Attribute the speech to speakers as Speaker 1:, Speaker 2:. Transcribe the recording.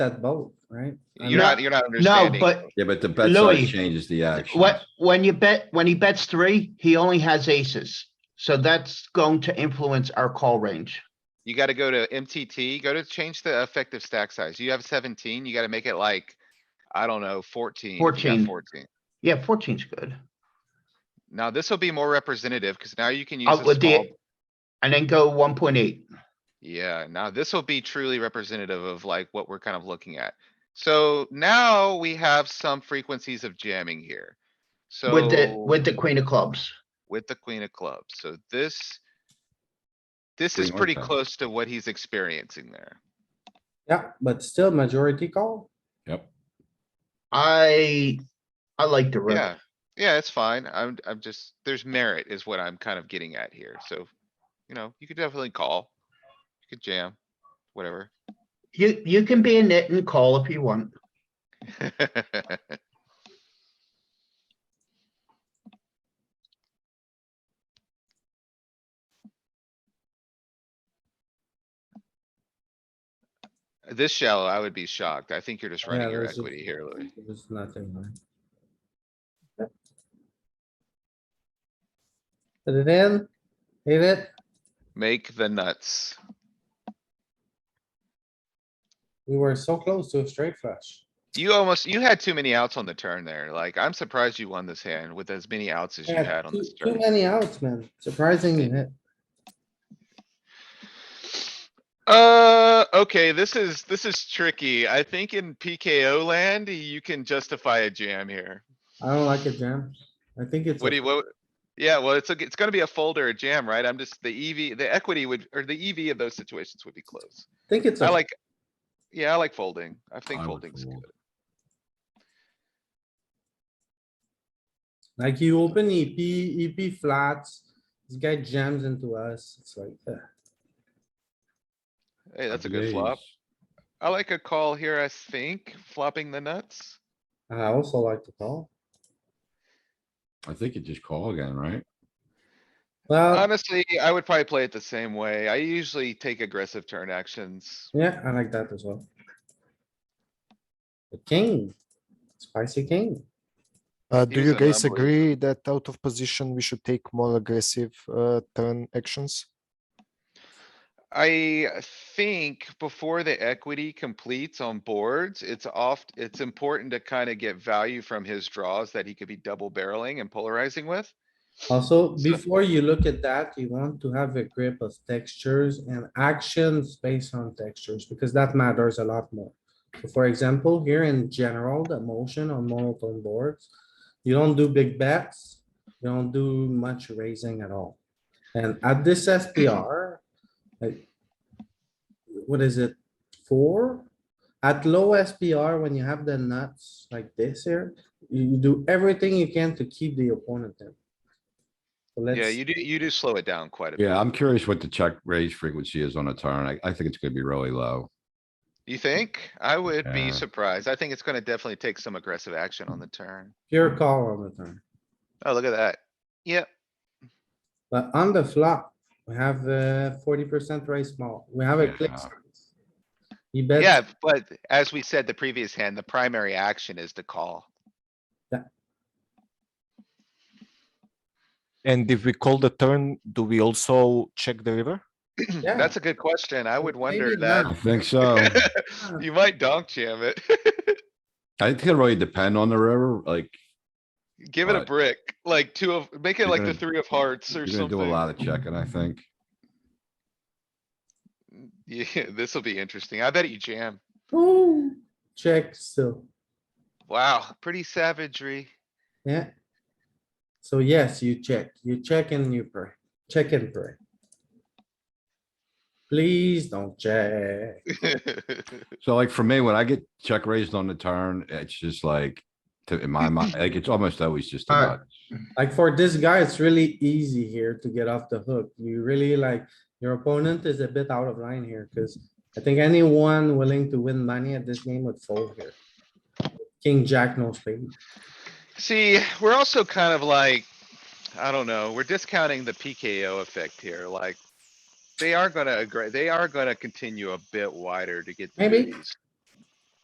Speaker 1: that boat, right? I
Speaker 2: You're
Speaker 1: mean,
Speaker 2: not, you're not
Speaker 3: No,
Speaker 2: understanding.
Speaker 3: but
Speaker 4: Yeah, but the bet
Speaker 3: Louis,
Speaker 4: size changes the action.
Speaker 3: what, when you bet, when he bets three, he only has aces. So that's going to influence our call range.
Speaker 2: You gotta go to MTT, go to change the effective stack size. You have seventeen, you gotta make it like, I don't know, fourteen. if you got
Speaker 3: 14.
Speaker 2: Fourteen.
Speaker 3: Yeah, 14's good.
Speaker 2: Now, this will be more representative, cuz now you can use
Speaker 3: Uh,
Speaker 2: a
Speaker 3: with
Speaker 2: small.
Speaker 3: the, and then go one point eight.
Speaker 2: Yeah, now this will be truly representative of like what we're kind of looking at. So now we have some frequencies of jamming here. So.
Speaker 3: With the, with the queen of clubs.
Speaker 2: with the queen of clubs, so this. This
Speaker 4: Queen
Speaker 2: is
Speaker 4: or
Speaker 2: pretty
Speaker 4: club.
Speaker 2: close to what he's experiencing there.
Speaker 1: Yeah, but still majority call.
Speaker 4: Yep.
Speaker 3: I, I like the
Speaker 2: Yeah,
Speaker 3: river.
Speaker 2: yeah, it's fine. I'm, I'm just, there's merit is what I'm kind of getting at here, so. You know, you could definitely call. You could jam, whatever.
Speaker 3: You, you can be a nit and call if you want.
Speaker 2: This shallow, I would be shocked. I think you're just
Speaker 1: Yeah,
Speaker 2: running your
Speaker 1: there's a-
Speaker 2: equity here, Louis.
Speaker 1: There's nothing, right? Yep. Put it in, hit it,
Speaker 2: Make the nuts.
Speaker 1: we were so close to a straight flush.
Speaker 2: You almost, you had too many outs on the turn there. Like, I'm surprised you won this hand with as many outs as you
Speaker 1: Yeah,
Speaker 2: had on
Speaker 1: too-
Speaker 2: this
Speaker 1: Too
Speaker 2: turn.
Speaker 1: many outs, man, surprising you hit.
Speaker 2: Uh, okay, this is, this is tricky. I think in PKO land, you can justify a jam here.
Speaker 1: I don't like it, jam. I think it's.
Speaker 2: What
Speaker 1: a-
Speaker 2: do you, what? Yeah, well, it's, a- it's gonna be a fold or a jam, right? I'm just, the EV, the equity would, or the EV of those situations would be close.
Speaker 1: I Think it's.
Speaker 2: I
Speaker 1: a-
Speaker 2: like, yeah, I like folding. I think
Speaker 4: I would
Speaker 2: folding's good.
Speaker 4: fold.
Speaker 1: Like you open E EP, EP flats, this guy jams into us, it's like, uh,
Speaker 2: Hey, that's a good flop.
Speaker 4: Raise.
Speaker 2: I like a call here, I think, flopping the nuts.
Speaker 1: I also like to call.
Speaker 4: I think you just call again, right?
Speaker 1: Well,
Speaker 2: Honestly, I would probably play it the same way. I usually take aggressive turn actions.
Speaker 1: yeah, I like that as well. The king, spicy king.
Speaker 5: Uh,
Speaker 2: He
Speaker 5: do
Speaker 2: was
Speaker 5: you
Speaker 2: an
Speaker 5: guys
Speaker 2: unbeliever.
Speaker 5: agree that out of position we should take more aggressive uh, turn actions?
Speaker 2: I think before the equity completes on boards, it's oft, it's important to kind of get value from his draws that he could be double barreling and polarizing with.
Speaker 1: Also, before you look at that, you want to have a grip of textures and actions based on textures, because that matters a lot more. So For example, here in general, the motion on monotone boards, you don't do big bets, you don't do much raising at all. And at this SPR, like, what is it, four? At low SPR, when you have the nuts like this here, you you do everything you can to keep the opponent in. So
Speaker 2: Yeah,
Speaker 1: let's,
Speaker 2: you do, you do slow it down quite a bit.
Speaker 4: Yeah, I'm curious what the check raise frequency is on a turn. I, I think it's gonna be really low.
Speaker 2: You think? I would be
Speaker 4: Yeah.
Speaker 2: surprised. I think it's gonna definitely take some aggressive action on the turn.
Speaker 1: pure call on the turn,
Speaker 2: Oh, look at that. Yep.
Speaker 1: but on the flop, we have uh forty percent raise small, we have a click.
Speaker 4: Yeah.
Speaker 1: size. He bets.
Speaker 2: Yeah, but as we said the previous hand, the primary action is to call.
Speaker 5: And if we call the turn, do we also check the river?
Speaker 1: Yeah.
Speaker 2: That's a good question. I would wonder
Speaker 1: Maybe
Speaker 2: that.
Speaker 4: I think so.
Speaker 2: You might donk jam it.
Speaker 4: I think it really depend on the river, like,
Speaker 2: Give it a
Speaker 4: Right.
Speaker 2: brick, like two of, make it
Speaker 4: You're
Speaker 2: like the
Speaker 4: gonna-
Speaker 2: three of hearts
Speaker 4: you're
Speaker 2: or
Speaker 4: gonna do a
Speaker 2: something.
Speaker 4: lot of checking, I think.
Speaker 2: Yeah, this'll be interesting. I bet you jam.
Speaker 1: Ooh, check still,
Speaker 2: Wow, pretty savagery.
Speaker 1: yeah. So yes, you check, you check and you pray, check and pray. Please don't check.
Speaker 4: So like for me, when I get check raised on the turn, it's just like, to, in my mind, like, it's almost always just a
Speaker 1: Alright.
Speaker 4: nut.
Speaker 1: Like for this guy, it's really easy here to get off the hook. You really like, your opponent is a bit out of line here, cuz I think anyone willing to win money at this game would fold here. King, jack, no spade.
Speaker 2: See, we're also kind of like, I don't know, we're discounting the PKO effect here, like. They are gonna agree, they are gonna continue a bit wider to get. through
Speaker 1: Maybe.
Speaker 2: these.